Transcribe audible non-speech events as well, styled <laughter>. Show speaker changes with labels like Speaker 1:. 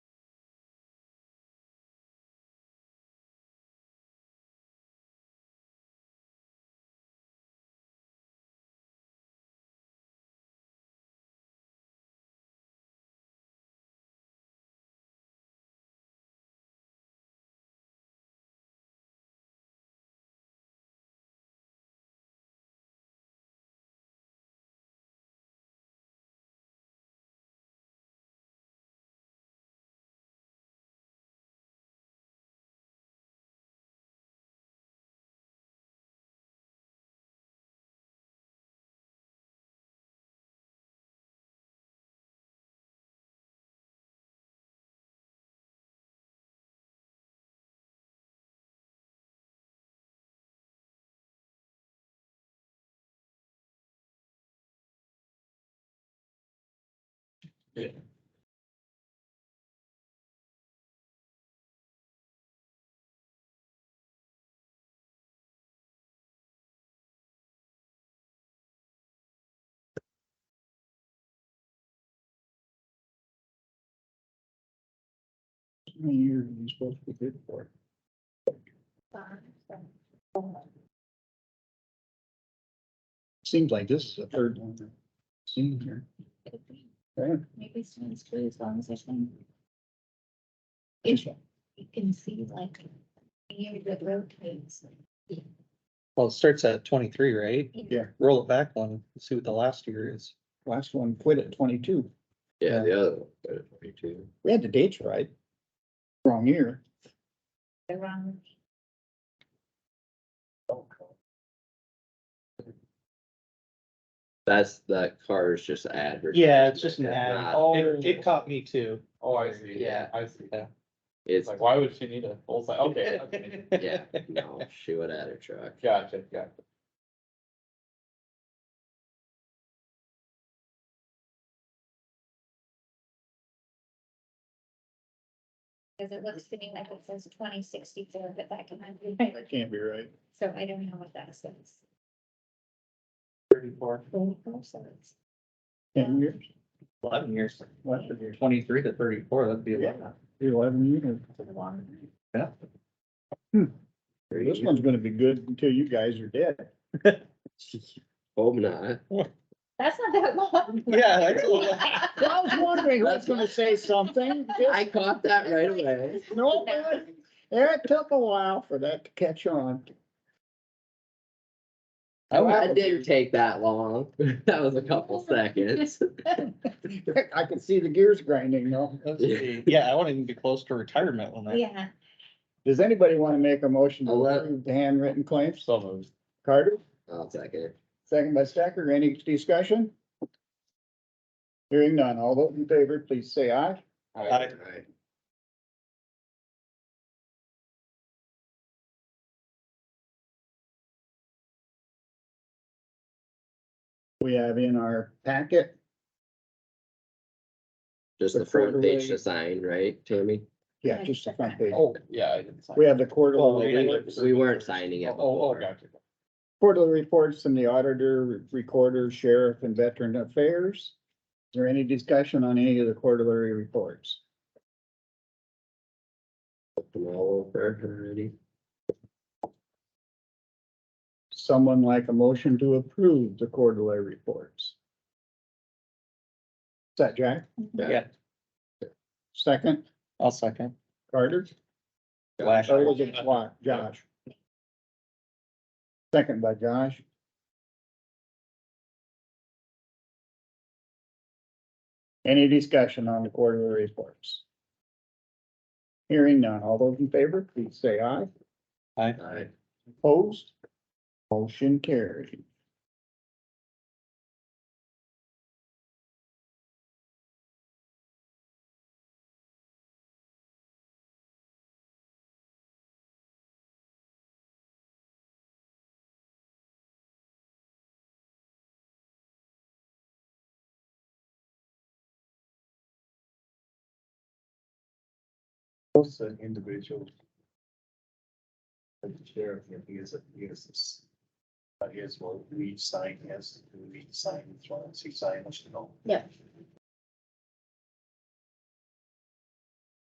Speaker 1: How many years are you supposed to bid for? Seems like this is the third one I've seen here. Okay.
Speaker 2: Maybe someone's too, as long as there's one.
Speaker 1: This
Speaker 2: If
Speaker 1: one.
Speaker 2: you can see like a year that rotates.
Speaker 3: Well, it starts at twenty-three, right?
Speaker 1: Yeah,
Speaker 3: Roll it back one, see what the last year is.
Speaker 1: last one quit at twenty-two.
Speaker 4: Yeah, the other one, but it's twenty-two.
Speaker 1: We had the dates right. Wrong year.
Speaker 2: Around.
Speaker 4: That's, that card is just advertised.
Speaker 5: Yeah, it's just an ad.
Speaker 4: Not-
Speaker 6: Oh.
Speaker 5: It, it caught me too.
Speaker 6: Oh, I see.
Speaker 5: Yeah.
Speaker 6: I see.
Speaker 3: Yeah.
Speaker 6: It's
Speaker 4: It's,
Speaker 6: like, why would she need a full size? Okay. okay.
Speaker 4: yeah, no, she would add a truck.
Speaker 6: Gotcha, gotcha.
Speaker 2: Cause it looks to me like it says twenty sixty-four, but that can be right,
Speaker 1: Can't be right.
Speaker 2: so I don't know what that says.
Speaker 5: Thirty-four.
Speaker 2: Twenty-four, so it's-
Speaker 1: Ten years,
Speaker 3: Eleven years.
Speaker 1: less than years.
Speaker 3: Twenty-three to thirty-four, that'd be
Speaker 1: Yeah. eleven years. This one's gonna be good until you guys are dead.
Speaker 4: <laughs> Hope not.
Speaker 2: That's not that
Speaker 3: <laughs>
Speaker 2: long.
Speaker 3: Yeah, that's a little-
Speaker 1: I
Speaker 2: <laughs>
Speaker 1: was wondering who's gonna say <laughs> something.
Speaker 4: I caught that right away.
Speaker 2: <laughs>
Speaker 1: No, it took a while for that to catch on. <laughs>
Speaker 4: Oh, That didn't take that long. <laughs> That was a couple seconds. <laughs>
Speaker 1: I could see the gears grinding, though.
Speaker 3: Let's see. Yeah, I wouldn't even be close to retirement when that.
Speaker 2: Yeah,
Speaker 1: Does anybody want to make a motion to
Speaker 4: I'll let-
Speaker 1: approve the handwritten claims?
Speaker 6: Oh, So moved.
Speaker 1: Carter,
Speaker 4: I'll take it.
Speaker 1: second by Stacker, any discussion? Hearing none, all those in favor, please say aye.
Speaker 3: I-
Speaker 4: Alright.
Speaker 1: We have in our packet,
Speaker 4: Just the front page to sign, right, Tammy?
Speaker 1: yeah, just the front page.
Speaker 6: Oh, yeah. I didn't sign.
Speaker 1: We have the
Speaker 3: Oh,
Speaker 1: quarterly,
Speaker 4: We we weren't signing
Speaker 6: Oh,
Speaker 4: it
Speaker 6: oh,
Speaker 4: before.
Speaker 6: gotcha.
Speaker 1: quarterly reports from the auditor, recorder, sheriff, and veteran affairs. Is there any discussion on any of the quarterly reports?
Speaker 4: Them all over already.
Speaker 1: Someone like a motion to approve the quarterly reports? Is that Jack?
Speaker 3: Yeah,
Speaker 1: Second,
Speaker 3: I'll second.
Speaker 1: Carter?
Speaker 3: Flash.
Speaker 1: Or was it Wa- Josh? Second by Josh. Any discussion on the quarterly reports? Hearing none. All those in favor, please say aye.
Speaker 4: Alright.
Speaker 1: Opposed? Motion carried.
Speaker 6: What's an individual? The sheriff, if he is, he uh, is. But here's what we sign, yes, we sign, as long as he signs, you know.
Speaker 2: Yeah.